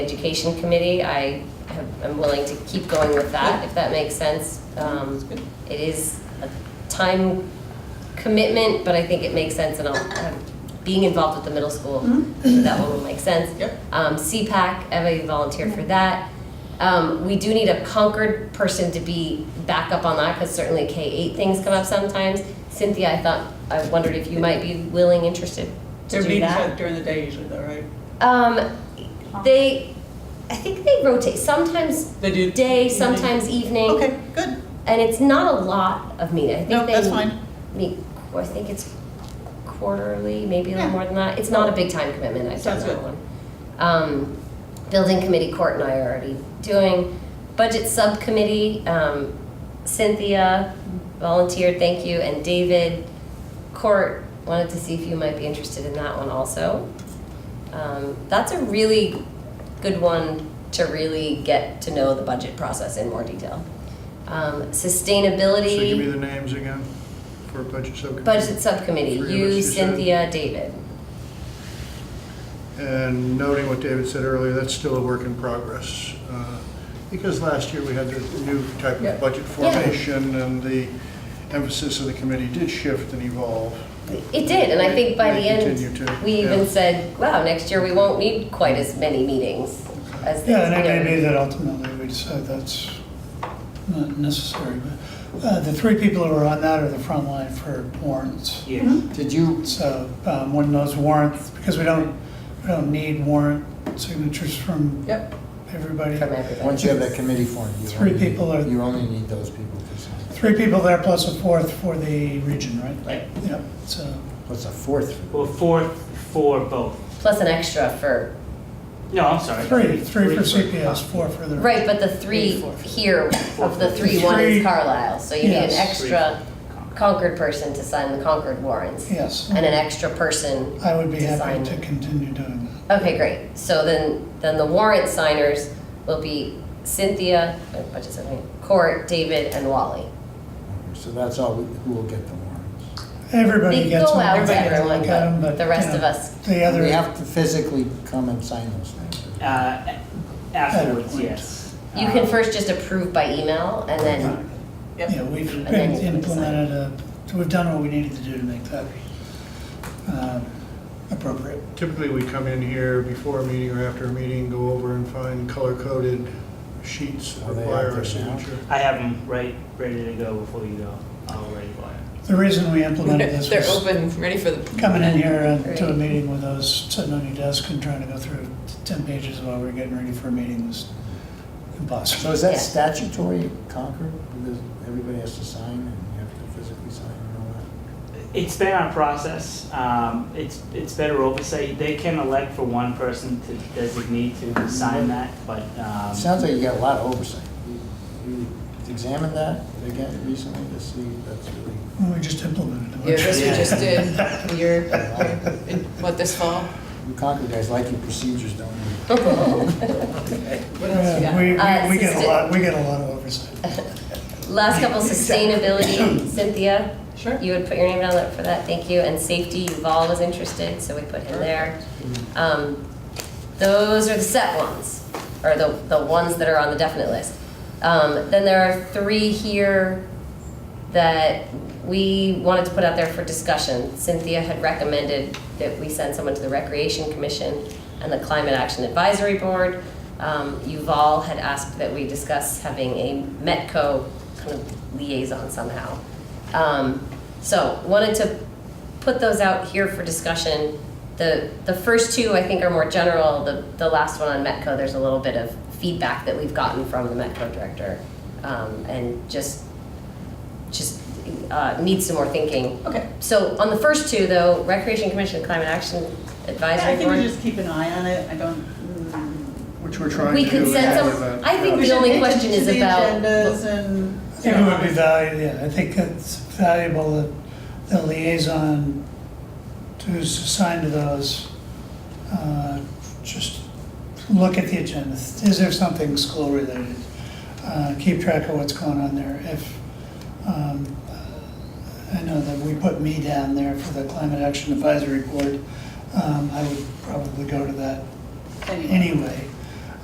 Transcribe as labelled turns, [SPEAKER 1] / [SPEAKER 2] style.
[SPEAKER 1] Education Committee, I have- am willing to keep going with that, if that makes sense. Um, It is a time commitment, but I think it makes sense, and I'll, have- being involved with the middle school, that one will make sense.
[SPEAKER 2] Yep.
[SPEAKER 1] Um, CPAC, Eva volunteered for that. Um, We do need a Concord person to be back up on that, because certainly K-8 things come up sometimes. Cynthia, I thought, I wondered if you might be willing, interested to
[SPEAKER 2] They're
[SPEAKER 1] do
[SPEAKER 2] meetings
[SPEAKER 1] that?
[SPEAKER 2] like during the day usually though, right?
[SPEAKER 1] Um, they, I think they rotate, sometimes
[SPEAKER 2] They do.
[SPEAKER 1] day,
[SPEAKER 2] evening.
[SPEAKER 1] sometimes evening.
[SPEAKER 2] Okay, good.
[SPEAKER 1] And it's not a lot of meeting, I think they.
[SPEAKER 2] No, that's fine.
[SPEAKER 1] Meet, I think it's quarterly, maybe a little
[SPEAKER 2] Yeah.
[SPEAKER 1] more than that, it's not a big time commitment, I've done
[SPEAKER 2] Sounds
[SPEAKER 1] that
[SPEAKER 2] good.
[SPEAKER 1] one. Um, building committee, Court and I are already doing, budget subcommittee, um, Cynthia volunteered, thank you, and David. Court, wanted to see if you might be interested in that one also. Um, that's a really good one to really get to know the budget process in more detail. Um,
[SPEAKER 3] So give me
[SPEAKER 1] sustainability,
[SPEAKER 3] the names again for budget subcommittee.
[SPEAKER 1] budget subcommittee,
[SPEAKER 3] Three of us,
[SPEAKER 1] you,
[SPEAKER 3] you said.
[SPEAKER 1] Cynthia, David.
[SPEAKER 3] And noting what David said earlier, that's still a work in progress. uh, Because last year we had the new type
[SPEAKER 2] Yeah.
[SPEAKER 3] of budget
[SPEAKER 1] Yeah.
[SPEAKER 3] formation and the emphasis of the committee did shift and evolve.
[SPEAKER 1] It did, and I think by the
[SPEAKER 3] May
[SPEAKER 1] end,
[SPEAKER 3] continue to,
[SPEAKER 1] we even
[SPEAKER 3] yeah.
[SPEAKER 1] said, wow, next year we won't need quite as many meetings as
[SPEAKER 4] Yeah, and it
[SPEAKER 1] things,
[SPEAKER 4] may
[SPEAKER 1] you
[SPEAKER 4] be
[SPEAKER 1] know.
[SPEAKER 4] that ultimately we decide that's not necessary, but uh, the three people who are on that are the front line for warrants.
[SPEAKER 2] Yeah.
[SPEAKER 5] Did you,
[SPEAKER 4] So um, when those warrants, because we don't, we don't need warrant signatures from
[SPEAKER 2] Yep.
[SPEAKER 4] everybody.
[SPEAKER 1] From everybody.
[SPEAKER 5] once you have that committee formed, you
[SPEAKER 4] Three
[SPEAKER 5] only need-
[SPEAKER 4] people are-
[SPEAKER 5] You only need those people to sign.
[SPEAKER 4] Three people there plus a fourth for the region, right?
[SPEAKER 2] Right.
[SPEAKER 4] Yep, so,
[SPEAKER 5] What's a fourth? for-
[SPEAKER 6] Well, four for both.
[SPEAKER 1] Plus an extra for,
[SPEAKER 6] No, I'm sorry.
[SPEAKER 4] three, three for CPS, four for the.
[SPEAKER 1] right, but the three here, of the three, one is
[SPEAKER 4] Three.
[SPEAKER 1] Carlisle, so you need an
[SPEAKER 4] Yes.
[SPEAKER 1] extra Concord person to sign the Concord warrants.
[SPEAKER 4] Yes.
[SPEAKER 1] And an extra person
[SPEAKER 4] I would be happy to
[SPEAKER 1] Design.
[SPEAKER 4] continue doing that.
[SPEAKER 1] Okay, great. So then, then the warrant signers will be Cynthia, uh, budget subcommittee, Court, David, and Wally.
[SPEAKER 5] So that's all, we- who will get the warrants?
[SPEAKER 4] Everybody
[SPEAKER 1] They
[SPEAKER 4] gets
[SPEAKER 1] go
[SPEAKER 4] one.
[SPEAKER 1] out to
[SPEAKER 4] Everybody doesn't
[SPEAKER 1] everyone,
[SPEAKER 4] look at 'em,
[SPEAKER 1] but
[SPEAKER 4] but,
[SPEAKER 1] the rest
[SPEAKER 4] you know,
[SPEAKER 1] of us,
[SPEAKER 4] The other.
[SPEAKER 5] We have to physically come and sign those things.
[SPEAKER 6] Uh, afterwards, yes. Um,
[SPEAKER 1] you can first just approve by email and then,
[SPEAKER 4] Yeah,
[SPEAKER 2] Yep.
[SPEAKER 4] we've
[SPEAKER 1] And then you can
[SPEAKER 4] implemented a, we've done what we needed to do to make that um, appropriate.
[SPEAKER 3] Typically, we come in here before a meeting or after a meeting, go over and find color-coded sheets that
[SPEAKER 5] Are they
[SPEAKER 3] require
[SPEAKER 5] out
[SPEAKER 3] our
[SPEAKER 5] there now?
[SPEAKER 3] signature.
[SPEAKER 6] I have them right, ready to go before you go. I'll ready for it.
[SPEAKER 4] The reason we implemented this
[SPEAKER 7] They're
[SPEAKER 4] was
[SPEAKER 7] open, ready for the.
[SPEAKER 4] coming in here and to a
[SPEAKER 1] Right.
[SPEAKER 4] meeting with those, sitting on your desk and trying to go through 10 pages while we were getting ready for a meeting was
[SPEAKER 5] So
[SPEAKER 4] impossible.
[SPEAKER 5] is that
[SPEAKER 1] Yeah.
[SPEAKER 5] statutory Concord? Because everybody has to sign and you have to physically sign and all that?
[SPEAKER 6] It's been our process. Um, it's, it's better oversight. They can elect for one person to designate to sign that, but,
[SPEAKER 5] It
[SPEAKER 6] um,
[SPEAKER 5] sounds like you got a lot of oversight. You you examined that again recently to see if that's really.
[SPEAKER 4] We just implemented
[SPEAKER 7] Yeah,
[SPEAKER 4] it.
[SPEAKER 7] this we
[SPEAKER 6] Yeah.
[SPEAKER 7] just did, year, in- what, this fall?
[SPEAKER 5] You Concord guys like your procedures, don't you?
[SPEAKER 4] Yeah, We,
[SPEAKER 1] Uh,
[SPEAKER 4] we- we get a
[SPEAKER 1] assistant.
[SPEAKER 4] lot, we get a lot of oversight.
[SPEAKER 1] last couple sustainability, Cynthia,
[SPEAKER 7] Sure.
[SPEAKER 1] you would put your name down that- for that, thank you. And safety, Yuval was interested, so we put him there. Um, Those are the set ones, or the, the ones that are on the definite list. Um, Then there are three here that we wanted to put out there for discussion. Cynthia had recommended that we send someone to the Recreation Commission and the Climate Action Advisory Board. Um, Yuval had asked that we discuss having a Metco kind of liaison somehow. Um, So wanted to put those out here for discussion. The, the first two, I think, are more general. The, the last one on Metco, there's a little bit of feedback that we've gotten from the Metco director. um, And just just uh, needs some more thinking.
[SPEAKER 2] Okay.
[SPEAKER 1] So on the first two, though, Recreation Commission, Climate Action
[SPEAKER 2] Yeah, I
[SPEAKER 1] Advisory
[SPEAKER 2] think we
[SPEAKER 1] Board,
[SPEAKER 2] just keep an eye on it. I don't. mm,
[SPEAKER 3] Which we're trying to do.
[SPEAKER 1] we could
[SPEAKER 3] in
[SPEAKER 1] send
[SPEAKER 3] all of
[SPEAKER 1] some,
[SPEAKER 3] that.
[SPEAKER 1] I think
[SPEAKER 2] we
[SPEAKER 1] the
[SPEAKER 2] should
[SPEAKER 1] only
[SPEAKER 2] pay attention
[SPEAKER 1] question
[SPEAKER 2] to
[SPEAKER 1] is
[SPEAKER 2] the
[SPEAKER 1] about.
[SPEAKER 2] Agendas and.
[SPEAKER 4] I think it would be valuable, yeah, I think it's valuable that the liaison who's assigned to those, uh, just look at the agenda. Is there something school related? Uh, Keep track of what's going on there. If, um, I know that we put me down there for the Climate Action Advisory Board, um, I would probably go to that
[SPEAKER 2] Anyway.
[SPEAKER 4] anyway.